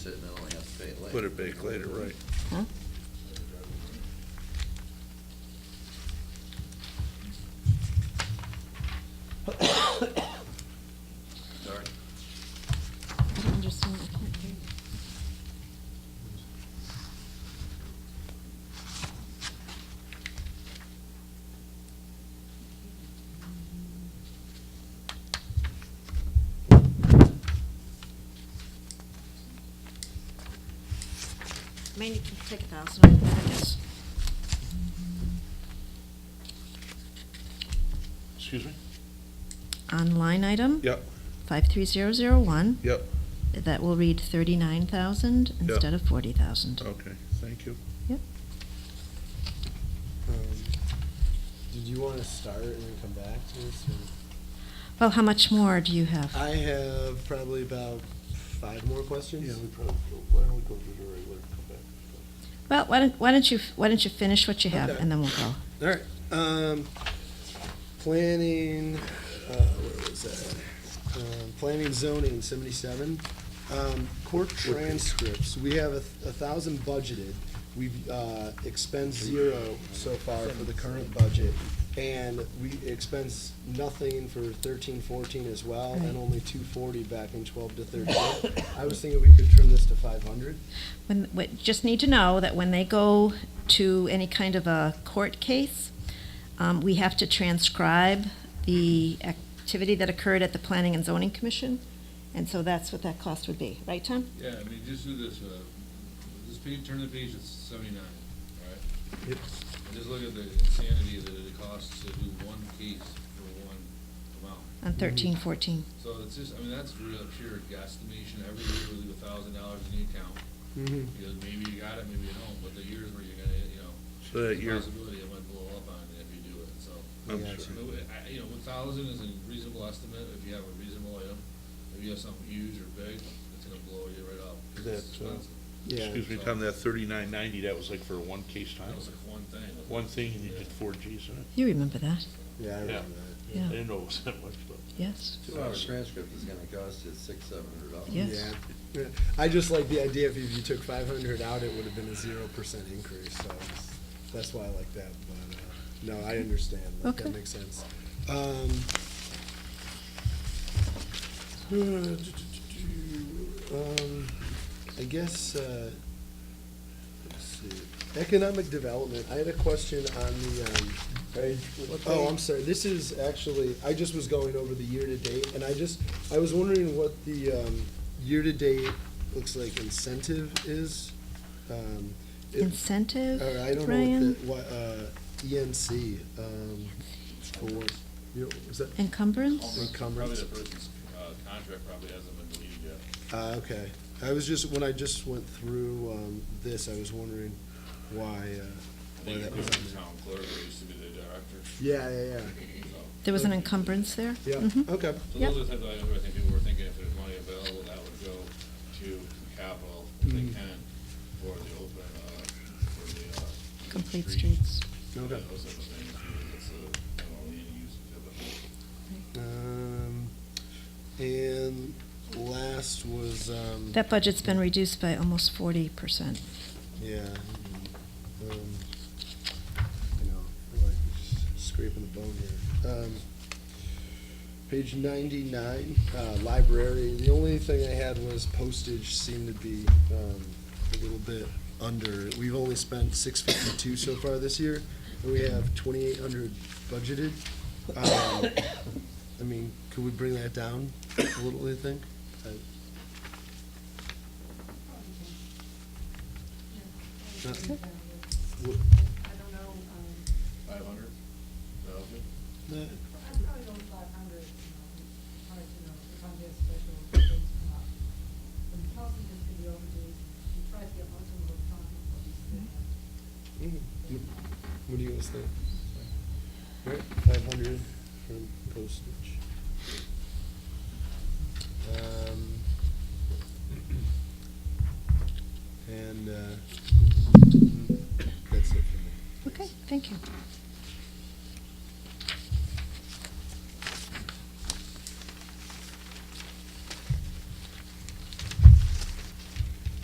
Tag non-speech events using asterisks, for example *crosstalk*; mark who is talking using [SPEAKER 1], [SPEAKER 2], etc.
[SPEAKER 1] sit and then only have to pay it
[SPEAKER 2] Put
[SPEAKER 1] later.
[SPEAKER 2] it back later, right?
[SPEAKER 1] Sorry.
[SPEAKER 3] I don't understand, I can't hear you. Maybe you can take a thousand, out of that, I guess.
[SPEAKER 2] Excuse me?
[SPEAKER 3] On line item
[SPEAKER 2] Yep,
[SPEAKER 3] 53001,
[SPEAKER 2] yep,
[SPEAKER 3] that will read 39,000
[SPEAKER 2] Yeah.
[SPEAKER 3] instead of 40,000.
[SPEAKER 2] okay, thank you.
[SPEAKER 3] Yep.
[SPEAKER 4] Um, Did you want to start and then come back to this? or-
[SPEAKER 3] Well, how much more do you have?
[SPEAKER 4] I have probably about five more questions.
[SPEAKER 2] Yeah, we probably, why don't we go to the regular, come back?
[SPEAKER 3] Well, why don't, why don't you, why don't you finish what you have,
[SPEAKER 4] Okay.
[SPEAKER 3] and then we'll go.
[SPEAKER 4] All right. Um, planning, uh, where was that? Um, planning zoning, seventy-seven. Um, court transcripts, we have a, th- a thousand budgeted. We've, uh, expensed zero so far for the current budget. And we expense nothing for thirteen, fourteen as well,
[SPEAKER 3] Right.
[SPEAKER 4] and only two forty back in twelve to thirteen. I was thinking we could trim this to five hundred.
[SPEAKER 3] When, what, just need to know that when they go to any kind of a court case, um, we have to transcribe the activity that occurred at the Planning and Zoning Commission, and so that's what that cost would be, right, Tom?
[SPEAKER 5] Yeah, I mean, just do this, uh, this page, turn the page, it's seventy-nine, alright?
[SPEAKER 4] Yep.
[SPEAKER 5] And just look at the insanity that it costs to do one case for one amount.
[SPEAKER 4] Mm-hmm.
[SPEAKER 3] On thirteen, fourteen.
[SPEAKER 5] So it's just, I mean, that's real pure guesstimation, every year we leave a thousand dollars in the account,
[SPEAKER 4] Mm-hmm.
[SPEAKER 5] because maybe you got it, maybe you don't, but the years where you're gonna, you know,
[SPEAKER 2] So that
[SPEAKER 5] there's a
[SPEAKER 2] you're,
[SPEAKER 5] possibility it might blow up on it if you do it, so.
[SPEAKER 2] I'm
[SPEAKER 4] Yeah,
[SPEAKER 2] sure.
[SPEAKER 5] I mean, I- You know, one thousand is a reasonable estimate, if you have a reasonable item, if you have something huge or big, it's gonna blow you right up, 'cause it's
[SPEAKER 2] That's, uh,
[SPEAKER 5] expensive.
[SPEAKER 4] Yeah.
[SPEAKER 2] Excuse me, Tom, that thirty-nine ninety, that was like for one case time?
[SPEAKER 5] That was like one thing. wasn't
[SPEAKER 2] One
[SPEAKER 5] it?
[SPEAKER 2] thing and you
[SPEAKER 5] Yeah.
[SPEAKER 2] did four Gs in it?
[SPEAKER 3] You remember that,
[SPEAKER 4] Yeah, I
[SPEAKER 2] Yeah.
[SPEAKER 4] remember that.
[SPEAKER 2] I
[SPEAKER 3] yeah,
[SPEAKER 2] didn't know it was that much, but.
[SPEAKER 3] yes,
[SPEAKER 1] Two hour transcript is gonna cost you six, seven hundred dollars.
[SPEAKER 3] Yes.
[SPEAKER 4] Yeah. Yeah. I just like the idea if you- if you took five hundred out, it would have been a zero percent increase, so it's- that's why I like that, but, uh, no, I understand, that,
[SPEAKER 3] Okay.
[SPEAKER 4] that makes sense. Um, uh, um, I guess, uh, let's see, economic development, I had a question on the, um, Oh, I'm sorry, this is actually, I just was going over the year-to-date, and I just, I was wondering what the, um, year-to-date looks like incentive is. Um, it-
[SPEAKER 3] incentive,
[SPEAKER 4] Or I don't know
[SPEAKER 3] Brian,
[SPEAKER 4] what the, what, uh, ENC, um, for, you know, was that
[SPEAKER 3] encumbrance?
[SPEAKER 5] Probably
[SPEAKER 4] encumbrance?
[SPEAKER 5] the person's, uh, contract probably hasn't been deleted yet.
[SPEAKER 4] Uh, okay, I was just, when I just went through, um, this, I was wondering why, uh, why
[SPEAKER 5] I think
[SPEAKER 4] that
[SPEAKER 5] it
[SPEAKER 4] was
[SPEAKER 5] was
[SPEAKER 4] on
[SPEAKER 5] the
[SPEAKER 4] there.
[SPEAKER 5] town clerk, who used to be the director,
[SPEAKER 4] Yeah, yeah,
[SPEAKER 5] so.
[SPEAKER 3] There was an encumbrance there?
[SPEAKER 4] yeah,
[SPEAKER 3] Mhm.
[SPEAKER 4] yeah, okay,
[SPEAKER 5] So
[SPEAKER 3] Yep.
[SPEAKER 5] those are the type of items where I think people were thinking if there's money available, that would go to capital, if they
[SPEAKER 4] Mm.
[SPEAKER 5] can, for the open, uh, for the, uh.
[SPEAKER 3] Complete
[SPEAKER 5] streets.
[SPEAKER 3] streets.
[SPEAKER 5] Those
[SPEAKER 4] okay.
[SPEAKER 5] type of things, because it's a, I don't know, any use of it.
[SPEAKER 4] Um, and last was, um,
[SPEAKER 3] That budget's been reduced by almost forty percent.
[SPEAKER 4] yeah, um, you know, we're like scraping the bone here. Um, page ninety-nine, uh, library, the only thing I had was postage seemed to be, um, a little bit under. We've only spent six fifty-two so far this year, and we have twenty-eight hundred budgeted. Um, *coughs* I mean, could we bring that down a little, I think?
[SPEAKER 6] I
[SPEAKER 4] Okay.
[SPEAKER 6] don't know, um,
[SPEAKER 5] Five hundred thousand?
[SPEAKER 4] Uh,
[SPEAKER 6] I'd probably go five hundred, hard to know, if I'm just special things come up. And Kelsey just could be overdue, she tries to get most of her time, but she's
[SPEAKER 4] Mm. What do you guys think? Right, five hundred from postage. Um, and, uh, that's it for me.
[SPEAKER 3] Okay, thank you.